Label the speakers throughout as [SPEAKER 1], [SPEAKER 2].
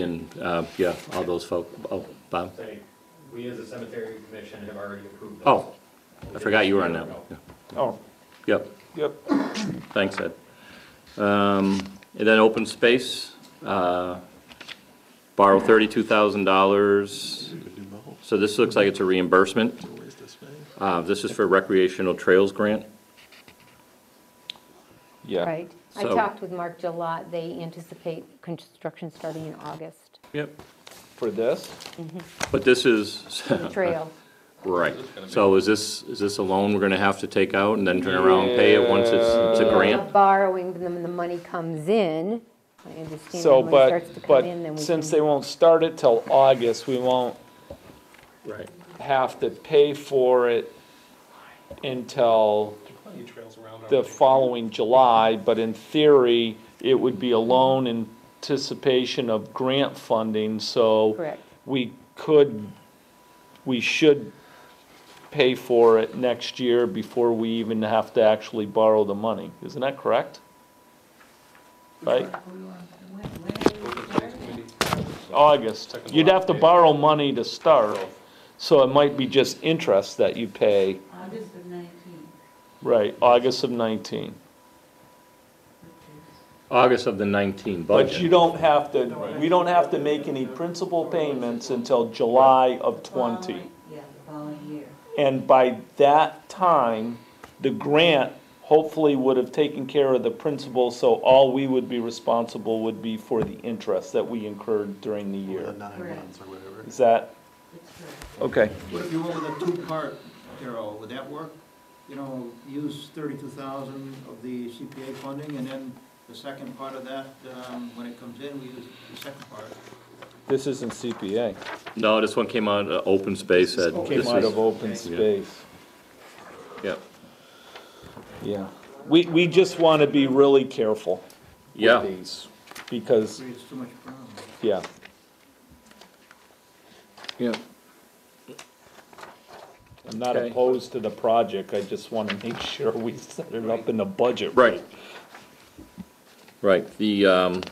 [SPEAKER 1] and, uh, yeah, all those folk, oh, Bob?
[SPEAKER 2] Say, we as a cemetery commission have already approved. those.
[SPEAKER 1] Oh, I forgot you were on that one. Yeah.
[SPEAKER 3] Oh,
[SPEAKER 1] Yep,
[SPEAKER 3] yep.
[SPEAKER 1] thanks, Ed. Um, And then open space, uh, borrow thirty-two thousand dollars. So this looks like it's a reimbursement. Uh, This is for recreational trails grant.
[SPEAKER 3] Yeah.
[SPEAKER 4] Right. I
[SPEAKER 1] So-
[SPEAKER 4] talked with Mark Gillot. Uh, They anticipate construction starting in August,
[SPEAKER 1] Yep.
[SPEAKER 3] For this?
[SPEAKER 1] But this is,
[SPEAKER 4] the trail.
[SPEAKER 1] right, so is this, is this a loan we're gonna have to take out and then turn around and pay it once it's, it's a
[SPEAKER 3] Yeah.
[SPEAKER 1] grant?
[SPEAKER 4] Borrowing, then when the money comes in, I understand
[SPEAKER 3] So,
[SPEAKER 4] when it starts to
[SPEAKER 3] but,
[SPEAKER 4] come in, then
[SPEAKER 3] but
[SPEAKER 4] we
[SPEAKER 3] since
[SPEAKER 4] can.
[SPEAKER 3] they won't start it till August, we won't
[SPEAKER 1] Right.
[SPEAKER 3] have to pay for it until
[SPEAKER 5] Plenty of trails around.
[SPEAKER 3] the following July, but in theory, it would be a loan in anticipation of grant funding, so.
[SPEAKER 4] Correct.
[SPEAKER 3] We could, we should pay for it next year before we even have to actually borrow the money, isn't that correct? Right? August. Oh, You'd have to borrow money to start, so it might be just interest that you pay,
[SPEAKER 6] August of nineteen.
[SPEAKER 3] right, August of nineteen.
[SPEAKER 1] August of the nineteen budget.
[SPEAKER 3] But you don't have to, we don't have to make any principal payments until July of twenty.
[SPEAKER 6] Following- Yeah, the following year.
[SPEAKER 3] And by that time, the grant hopefully would have taken care of the principal, so all we would be responsible would be for the interest that we incurred during the year.
[SPEAKER 6] Correct.
[SPEAKER 3] Is that,
[SPEAKER 6] It's correct.
[SPEAKER 3] okay,
[SPEAKER 7] What if you went with a two-part, Darrell, would that work? You know, use thirty-two thousand of the CPA funding, and then the second part of that, um, when it comes in, we use the second part.
[SPEAKER 3] this isn't CPA,
[SPEAKER 1] No, this one came out, uh, open space, Ed.
[SPEAKER 3] came
[SPEAKER 1] This
[SPEAKER 3] out
[SPEAKER 1] is-
[SPEAKER 3] of open space,
[SPEAKER 1] Yep.
[SPEAKER 3] yeah. We, we just want to be really careful with
[SPEAKER 1] Yeah,
[SPEAKER 3] these, because,
[SPEAKER 7] Creates too much problem.
[SPEAKER 3] yeah.
[SPEAKER 1] yeah.
[SPEAKER 3] I'm not
[SPEAKER 1] Okay.
[SPEAKER 3] opposed to the project, I just want to make sure we set it up in the budget.
[SPEAKER 1] Right. Right, the, um,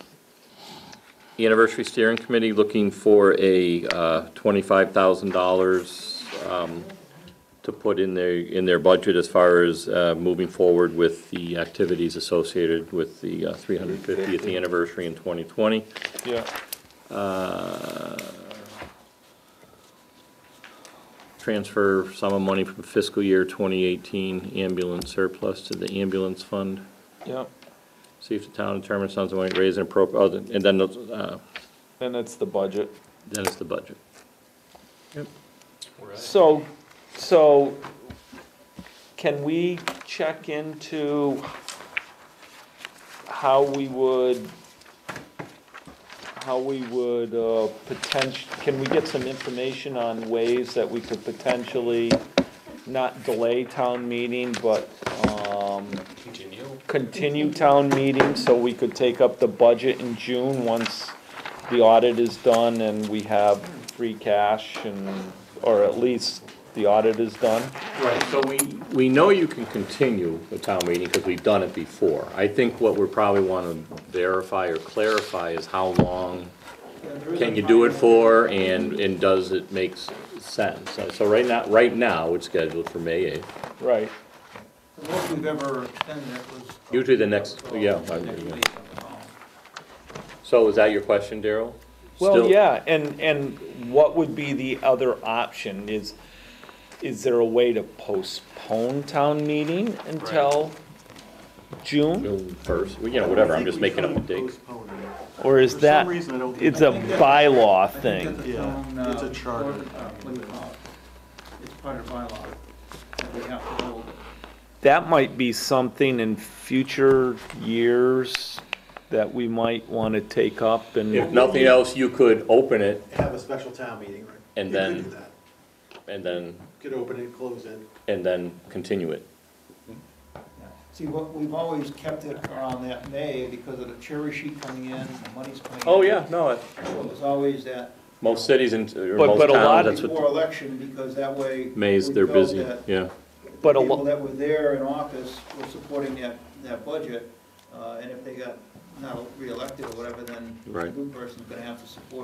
[SPEAKER 1] the anniversary steering committee looking for a, uh, twenty-five thousand dollars, um, to put in their, in their budget as far as, uh, moving forward with the activities associated with the uh, three hundred fiftieth anniversary in twenty twenty.
[SPEAKER 3] Yeah.
[SPEAKER 1] Uh, Transfer sum of money from fiscal year twenty eighteen ambulance surplus to the ambulance fund.
[SPEAKER 3] Yeah,
[SPEAKER 1] See if the town determines sums of money to raise and appropriate, oh, and then, uh,
[SPEAKER 3] and it's the budget.
[SPEAKER 1] then it's the budget.
[SPEAKER 3] So, so can we check into how we would, how we would uh, potenti, can we get some information on ways that we could potentially not delay town meeting, but um,
[SPEAKER 5] Continue.
[SPEAKER 3] continue town meeting so we could take up the budget in June once the audit is done and we have free cash and, or at least the audit is done?
[SPEAKER 1] Right, so we, we know you can continue the town meeting because we've done it before. I think what we probably want to verify or clarify is how long can you do it for and, and does it make s- sense? So- So right now, right now, it's scheduled for May 8th.
[SPEAKER 3] Right.
[SPEAKER 7] The most we've ever extended it was.
[SPEAKER 1] Usually the next- yeah, I
[SPEAKER 7] Next
[SPEAKER 1] agree, yeah.
[SPEAKER 7] week, um,
[SPEAKER 1] So is that your question, Daryl?
[SPEAKER 3] Well,
[SPEAKER 1] Still-
[SPEAKER 3] yeah, and, and what would be the other option is, is there a way to postpone town meeting until June?
[SPEAKER 1] June 1st, Well, you know, whatever, I'm just making up a date.
[SPEAKER 3] Mm-hmm. Or is
[SPEAKER 8] For some
[SPEAKER 3] that,
[SPEAKER 8] reason, I don't think-
[SPEAKER 3] it's a bylaw
[SPEAKER 7] I think that
[SPEAKER 3] thing?
[SPEAKER 7] the
[SPEAKER 8] Yeah,
[SPEAKER 7] town, uh,
[SPEAKER 8] it's a charter.
[SPEAKER 7] board, uh, What do you call it? It's part of bylaw that we have to hold.
[SPEAKER 3] that might be something in future years that we might want to take up
[SPEAKER 1] If
[SPEAKER 3] and,
[SPEAKER 1] nothing else, you could open it
[SPEAKER 8] Have a special town meeting, right?
[SPEAKER 1] And
[SPEAKER 8] You could
[SPEAKER 1] then-
[SPEAKER 8] do that.
[SPEAKER 1] and then,
[SPEAKER 8] Could open it, close it.
[SPEAKER 1] and then continue it.
[SPEAKER 7] Yeah. See, what, we've always kept it around that May because of the cherry sheet coming in, the money's coming in.
[SPEAKER 1] Oh, yeah, no, it-
[SPEAKER 7] So it was always that
[SPEAKER 1] most cities and, or
[SPEAKER 3] But-
[SPEAKER 1] most
[SPEAKER 3] but a lot-
[SPEAKER 1] towns, that's
[SPEAKER 7] before
[SPEAKER 1] what,
[SPEAKER 7] election, because that way.
[SPEAKER 1] May's,
[SPEAKER 7] we
[SPEAKER 1] they're
[SPEAKER 7] felt
[SPEAKER 1] busy,
[SPEAKER 7] that
[SPEAKER 1] yeah.
[SPEAKER 7] The
[SPEAKER 3] But a lo-
[SPEAKER 7] people that were there in office were supporting that, that budget, uh, and if they got not reelected or whatever, then the
[SPEAKER 1] Right.
[SPEAKER 7] new person's gonna have to support